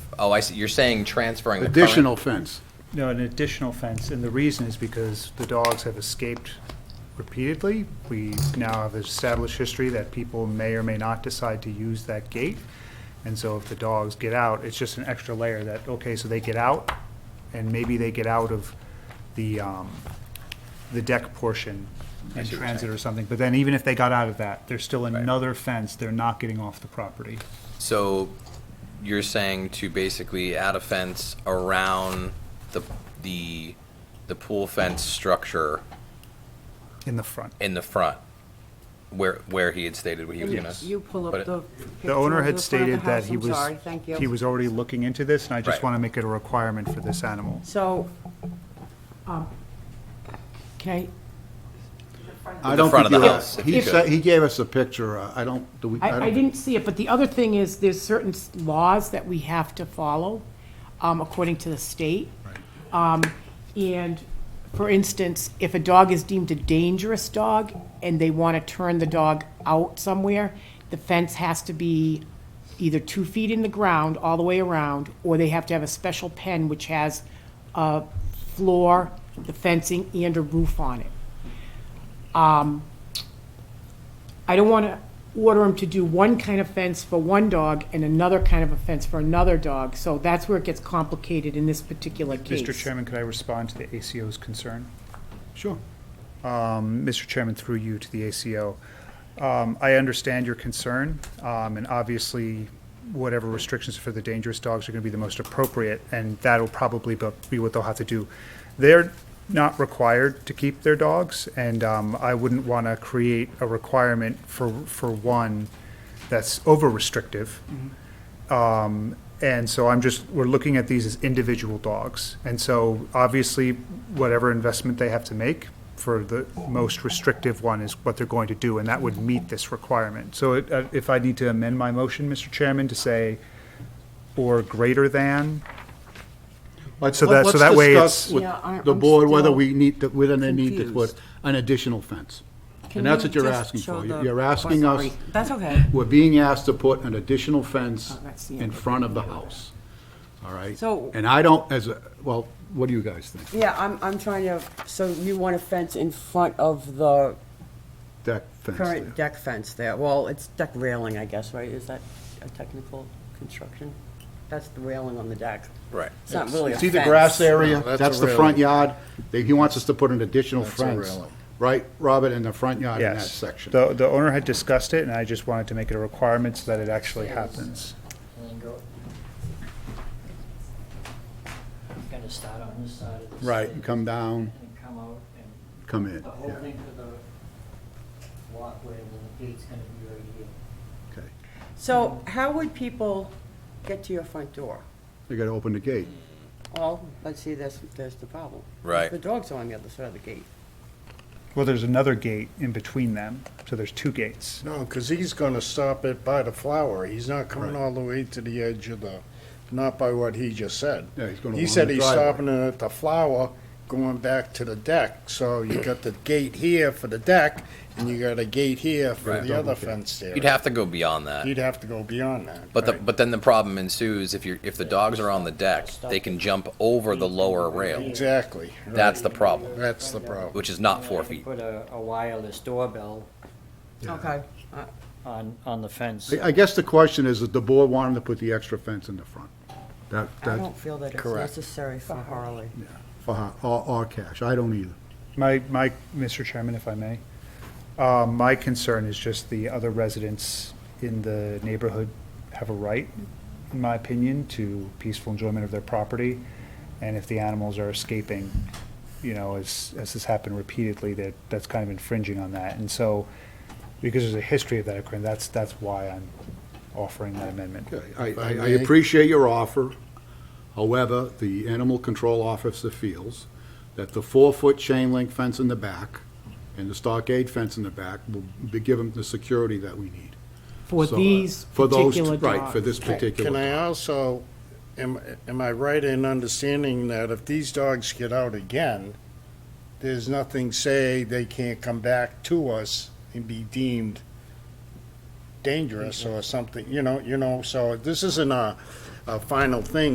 Oh, I see, you're saying transferring the current- Additional fence. No, an additional fence, and the reason is because the dogs have escaped repeatedly. We now have established history that people may or may not decide to use that gate. And so if the dogs get out, it's just an extra layer that, okay, so they get out, and maybe they get out of the, um, the deck portion in see what you're transit or something. But then even if they got out of that, there's still another fence, they're not getting off the property. So you're saying to basically add a fence around the, the, the pool fence structure In the front. in the front, where, where he had stated what he was gonna. You pull put up it. the. The picture owner of had the front of the stated that house. he I'm was, sorry, thank you. he was already looking into this, and I just Right. want to make it a requirement for this animal. So, um, okay, I The don't front think of the you- house, if He you said, could. he gave us a picture, uh, I don't, do we? don't I, I think- didn't see it, but the other thing is, there's certain s- laws that we have to follow, um, according to the state. Um, and, for instance, if a dog is deemed a dangerous dog and they want to turn the dog out somewhere, the fence has to be either two feet in the ground, all the way around, or they have to have a special pen which has a floor, the fencing, and a roof on it. I don't want to order him to do one kind of fence for one dog and another kind of a fence for another dog. So that's where it gets complicated in this particular case. Mr. Chairman, could I respond to the ACO's concern? Sure. Um, Mr. Chairman, through you to the ACO. Um, I understand your concern, um, and obviously, whatever restrictions for the dangerous dogs are going to be the most appropriate, and that'll probably bu- be what they'll have to do. They're not required to keep their dogs, and um, I wouldn't want to create a requirement for, for one that's over-restrictive. Um, And so I'm just, we're looking at these as individual dogs. And so obviously, whatever investment they have to make for the most restrictive one is what they're going to do, and that would meet this requirement. So it- uh, if I need to amend my motion, Mr. Chairman, to say, or greater than, Let's- So that- so that way Let's discuss it's- Yeah, I- with the I'm board whether still we need, to- whether they need to put confused. an additional fence. Can And that's you what you're just asking show for. You're the- you're asking Oh, us, sorry. That's okay. we're being asked to put an additional fence Oh, that's the in end. front of the house, all right? So- And I don't, as a, well, what do you guys think? Yeah, I'm, I'm trying to, so you want a fence in front of the That fence current there. deck fence there? Well, it's deck railing, I guess, right? Is that a technical construction? That's the railing on the deck. Right. It's not really a It's fence. either grass No, area, that's that's a the railing. front yard, They- he wants us to put an additional That's a fence, railing. right, Robert, in the front yard in that yes. section. The, the owner had discussed it, and I just wanted to make it a requirement so that it actually happens. It's gonna start on this side of the street. Right, and come down, And come out and come in, the whole yeah, length of the walkway where the gate's gonna be right here. okay. So how would people get to your front door? They gotta open the gate. Well, let's see, that's, there's the problem. Right. The dogs are on the other side of the gate. Well, there's another gate in between them, so there's two gates. No, because he's going to stop it by the flower. He's not coming Right. all the way to the edge of the, not by what he just said. Yeah, he's gonna He along said the he's driveway. stopping it at the flower, going back to the deck. So you got the gate here for the deck, and you got a gate here for Right. the other Double gate. fence there. You'd have to go beyond that. He'd have to go beyond that. But the, right. but then the problem ensues if you're, if the dogs are on the deck, they can jump over the lower rail. Exactly. right. That's the problem, That's the problem. which is not And I four could feet. Put a, a wireless doorbell Okay. Uh, on, on the fence. I I guess the question is, that the board want him to put the extra fence in the front? That, I that, don't feel that it's Correct. necessary for Harley. yeah, for, her- or, or cash, I don't either. My, my, Mr. Chairman, if I may, uh, my concern is just the other residents in the neighborhood have a right, in my opinion, to peaceful enjoyment of their property. And if the animals are escaping, you know, as, as has happened repeatedly, that, that's kind of infringing on that. And so, because there's a history of that occurring, that's, that's why I'm offering that amendment. Okay, I, I I may. appreciate your offer. However, the animal control officer feels that the four-foot chain link fence in the back and the stockade fence in the back will be, give them the security that we need. For So, uh, these for those- particular dogs. Right, for this particular. Can I dog. also, am, am I right in understanding that if these dogs get out again, there's nothing say they can't come back to us and be deemed dangerous or something, you know, you know, so this isn't a, a final thing